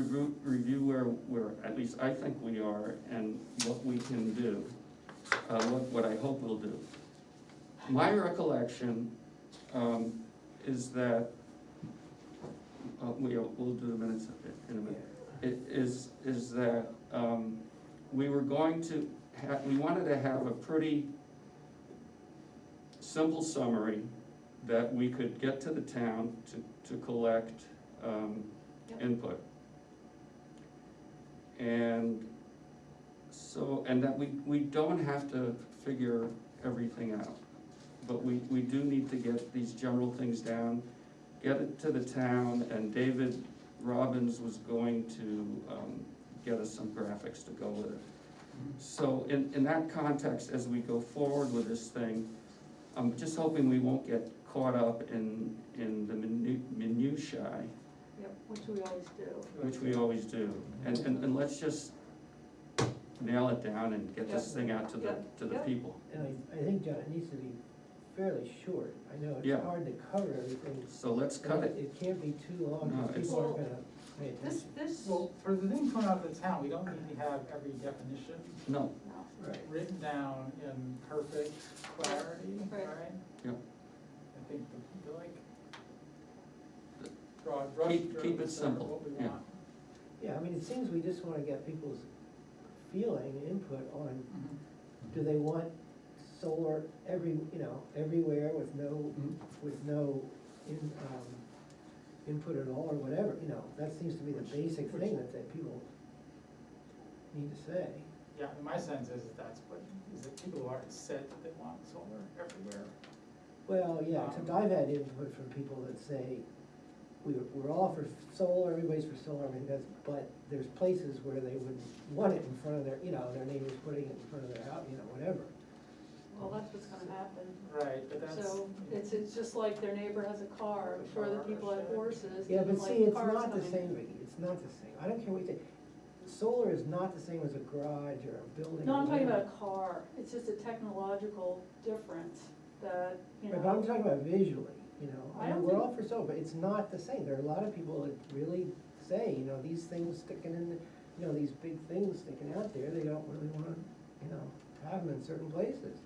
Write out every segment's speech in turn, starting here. review, review where we're, at least I think we are, and what we can do, uh, what, what I hope we'll do. My recollection, um, is that, uh, we, we'll do the minutes in a minute. It is, is that, um, we were going to ha we wanted to have a pretty simple summary that we could get to the town to, to collect, um, Yep. input. And so, and that we, we don't have to figure everything out. But we, we do need to get these general things down, get it to the town, and David Robbins was going to, um, get us some graphics to go with it. So in, in that context, as we go forward with this thing, I'm just hoping we won't get caught up in, in the minu- minutiae, Yep, which we always do. which we always do. And, and, and let's just nail it down and get this thing out to the, to the Yeah, yeah. people. And I, I think, John, it needs to be fairly short. I know Yeah. it's hard to cover everything. So let's cut but it. It can't be too long, No, because it's- people aren't gonna pay This, attention. this, Well, for the things coming out of the town, we don't need to have every definition No, no, Right. written down in perfect clarity, Right. right? Yeah. I think the, the like, broad brush Keep- strokes keep it are simple, what we yeah. want. Yeah, I mean, it seems we just wanna get people's feeling, input on, Mm-hmm. Mhm. do they want solar every, you know, everywhere with no, Mhm. with no in, um, input at all or whatever, you know? That seems to be the Which- basic which- thing that, that people need to say. Yeah, and my sense is that that's what, is that people aren't set that they want solar everywhere. Well, yeah, except Um, I've had input from people that say, we, we're all for solar, everybody's for solar, everything does, but there's places where they would want it in front of their, you know, their neighbors putting it in front of their house, you know, whatever. well, that's what's gonna happen. Right, but that's. So it's, it's just like their neighbor has a car, I'm sure the people have horses. Yeah, and, but like, see, it's cars not the coming. same, Vicky, it's not the same, I don't care what you think, solar is not the same as a garage or a building. No, or I'm talking whatever. about a car, it's just a technological difference that, you Right, But I'm know, talking about visually, you know, I I mean, don't we're think- all for solar, but it's not the same, there are a lot of people that really say, you know, these things sticking in, the- you know, these big things sticking out there, they don't really wanna, you know, have them in certain places.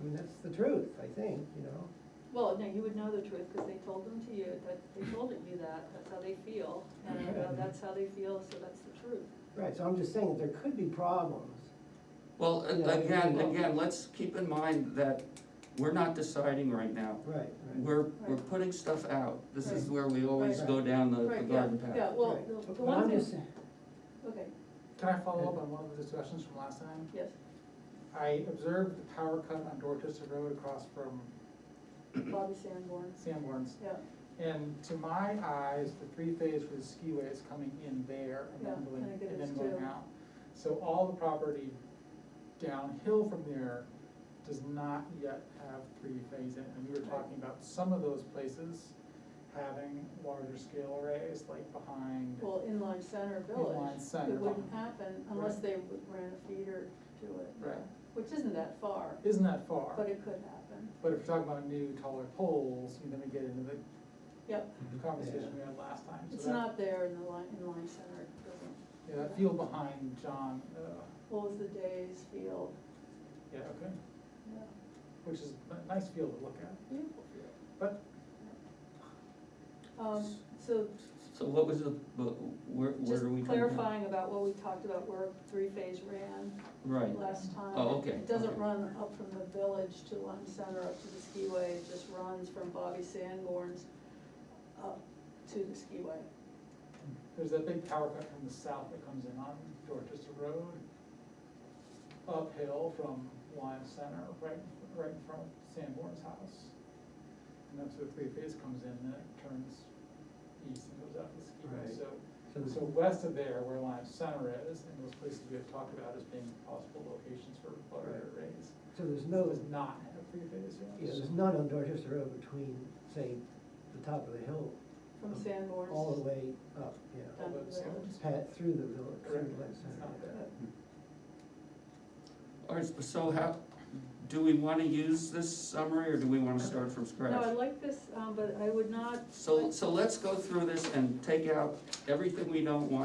I mean, that's the truth, I think, you know, well, no, you would know the truth, because they told them to you, that, they told you that, that's how they feel. And uh, Yeah. that's how they feel, so that's the truth. right, so I'm just saying that there could be problems. well, a- Yeah. again, again, let's keep in mind that we're not deciding right now. Right, right. We're, we're putting stuff out. This is where we always Right. go down the, the Right, yeah, garden path. Yeah, well, right. the- But the one I'm thing, just saying- okay, Can I follow up on one of the discussions from last time? yes, I observed the power cut on Dorchester Road across from Bobby Sanborn, Sanborn's. yeah. And to my eyes, the three-phase for the skiway is coming in there and Yeah, then going, I think it and then is going too. out. So all the property downhill from there does not yet have three-phase in it. And we were talking about some of those places having larger scale arrays, like behind, Well, inline center Inline village, center. it wouldn't happen unless they would ran a feeder to it. uh, Right. Which isn't that far, isn't that far? but it could happen, But if you're talking about new taller poles, then we get into the yep, the conversation we had last time. So it's that- not there in the line, inline center, it doesn't, Yeah, that field behind John, uh, what was the day's field? yeah, okay, Yeah, which is a nice field to look at. Beautiful field. But Um, so So what was the, but where, where just are we? going now? clarifying about what we talked about where three-phase ran Right, last time. Oh, okay, It doesn't okay. run up from the village to Lime Center up to the skiway, it just runs from Bobby Sanborn's up to the skiway. there's that big power cut from the south that comes in on Dorchester Road, uphill from Lime Center, right, right in front of Sanborn's house. And that's where three phase comes in, and then it turns east and goes out to the Right. skiway, so. So the- So west of there, where Lime Center is, and those places we have talked about as being possible locations for butter arrays, So there's no, does not have three phase, yeah, yes. there's none on Dorchester Road between, say, the top of the hill, From Sanborn's. all the way up, yeah. Down to the village. Pat, through the village, through Correct, the it's center. not there. all right, so how, do we wanna use this summary, or do we wanna start from No, I scratch? like this, um, but I would not So, so let's go through this and take out everything we don't want